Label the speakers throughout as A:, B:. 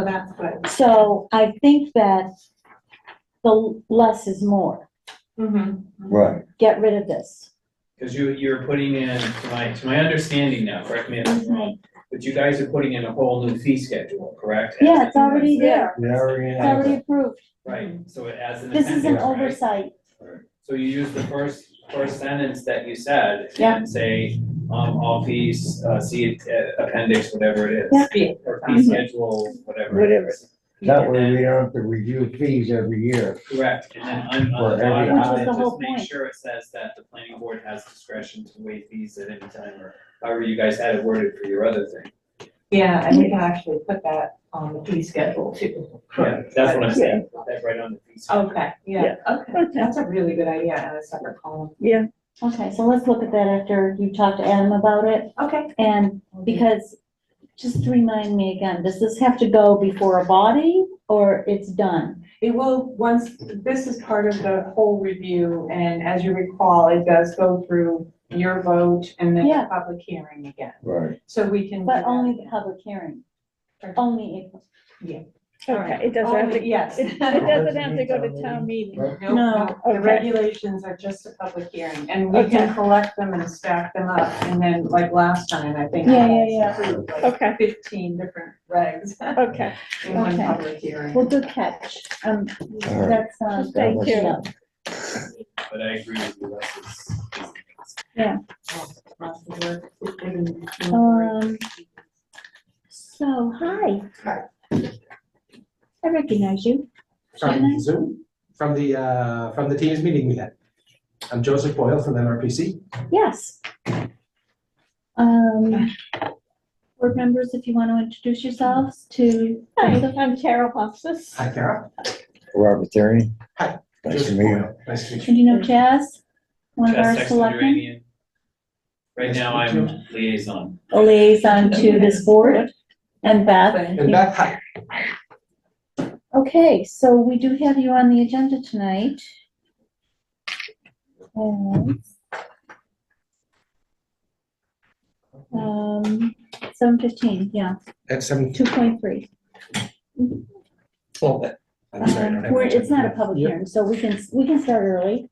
A: So Oh, that's good.
B: So I think that the less is more.
A: Mhm.
C: Right,
B: Get rid of this.
D: Because you, you're putting in, to my, to my understanding now, correct me if I'm wrong, but you guys are putting in a whole new fee schedule, correct?
B: Yeah, it's already there.
C: we already
B: It's
C: have
B: already
C: it.
B: approved.
D: Right, so it adds an
B: This is an
D: appendix, right?
B: oversight.
D: So you use the first, first sentence that you said
B: Yeah.
D: and say, um, all fees, uh, see uh, appendix, whatever it is.
B: Yeah. Mm-hmm.
D: Or fee schedule, whatever it is.
C: That way we don't have to review fees every year.
D: Correct, and then on,
C: For
D: on the
C: every
D: bottom,
C: item.
B: Which is
D: then
B: the
D: just
B: whole
D: make
B: point.
D: sure it says that the planning board has discretion to waive fees at any time or however you guys had it worded for your other thing.
A: Yeah, and we can actually put that on the fee schedule too.
D: Yeah, that's what I'm saying, put that right on the fee schedule.
B: Oh.
A: Okay, yeah, okay, that's a really good idea, and a separate column.
B: Okay, so let's look at that after you talk to Adam about it.
A: Okay.
B: And because, just remind me again, does this have to go before a body or it's done?
A: It will, once, this is part of the whole review, and as you recall, it does go through your vote and then
B: Yeah.
A: the public hearing again.
C: Right.
A: So we can. do
B: But
A: that.
B: only the public hearing. Only if,
E: Okay, it doesn't have to,
A: Only- Yes.
E: it doesn't have to go to town meeting.
C: Right.
A: Nope,
B: No,
A: The
E: okay.
A: regulations are just a public hearing, and we can
E: Okay.
A: collect them and stack them up, and then, like last time, I think.
B: Yeah, yeah, yeah.
A: approved, like,
E: Okay.
A: Fifteen different regs
E: Okay,
A: in one
B: Okay.
A: public hearing.
B: well, good catch. Um,
C: All right.
B: that's, uh,
E: Thank
B: good
E: you.
B: to know.
D: But I agree with you, that's is.
A: Lots of work, and-
B: Um, so, hi. I recognize you.
F: from Zoom, from the, uh, from the team's meeting we had. I'm Joseph Boyle from MRPC.
B: Yes. Um, board members, if you want to introduce yourselves to.
E: hi, I'm Carol Hofstas.
F: Hi, Kara.
C: Robert Therian.
F: Hi.
C: Nice to
F: Joseph
C: meet you.
F: Boyle. Nice to meet you.
B: And you know Jazz? One of our
D: Chest
B: selectmen,
D: Iranian. Right
F: Yes,
D: now,
F: me
D: I'm liaison.
B: a liaison to this board, and Beth.
F: And Beth, hi.
B: Okay, so we do have you on the agenda tonight. And, Um, seven fifteen, yeah,
F: At seven,
B: two point three.
F: well, that- I'm sorry, I don't have.
B: Um, We're,
F: much on
B: it's not a
F: that.
B: public
F: Yep.
B: hearing, so we can, we can start early,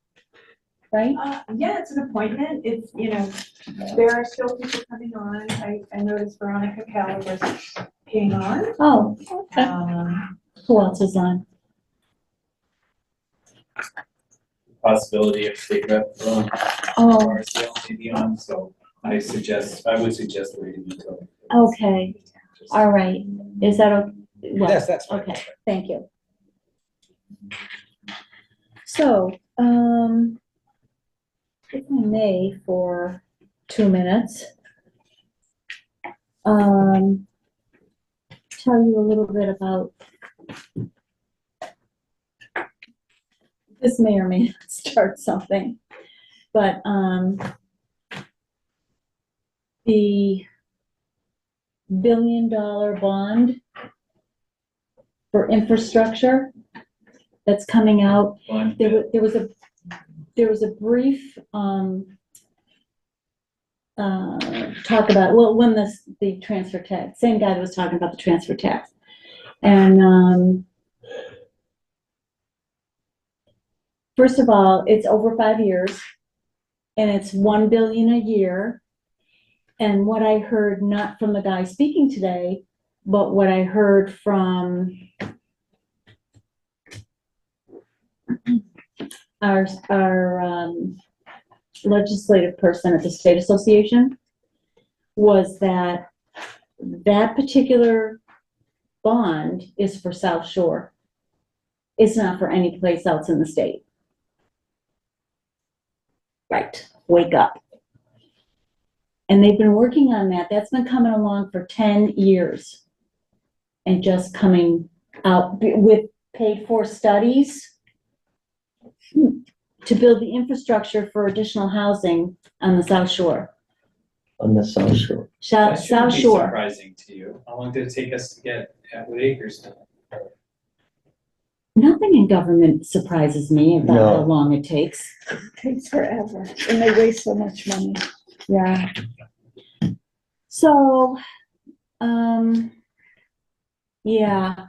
B: right?
A: Uh, yeah, it's an appointment, it's, you know, there are still people coming on, I, I noticed Veronica Calabres came on.
B: Oh,
A: Um,
B: who else is on?
D: Possibility of state rep, um,
B: Oh,
D: RCL may be on, so I suggest, I would suggest waiting until.
B: Oh, okay,
D: Just-
B: all right, is that, o- well,
F: Yes, that's fine.
B: okay, thank you. So, um, if I may, for two minutes, um, tell you a little bit about this may or may not start something, but, um, the billion dollar bond for infrastructure that's coming out
D: Fine.
B: there was, there was a, there was a brief, um, uh, talk about, well, when this, the transfer tax, same guy that was talking about the transfer tax. And, um, first of all, it's over five years and it's one billion a year. And what I heard, not from the guy speaking today, but what I heard from our, our um, legislative person at the state association was that that particular bond is for South Shore. It's not for any place else in the state. Right, wake up. And they've been working on that. That's been coming along for ten years. And just coming out with paid-for studies to build the infrastructure for additional housing on the South Shore.
C: On the South Shore.
B: Shou-
D: That shouldn't
B: South
D: be
B: Shore,
D: Surprising to you. How long did it take us to get Atwood Acres done?
B: nothing in government surprises me about how
C: No.
B: long it takes.
E: Takes forever, and they waste so much money.
B: Yeah. So, um, Yeah,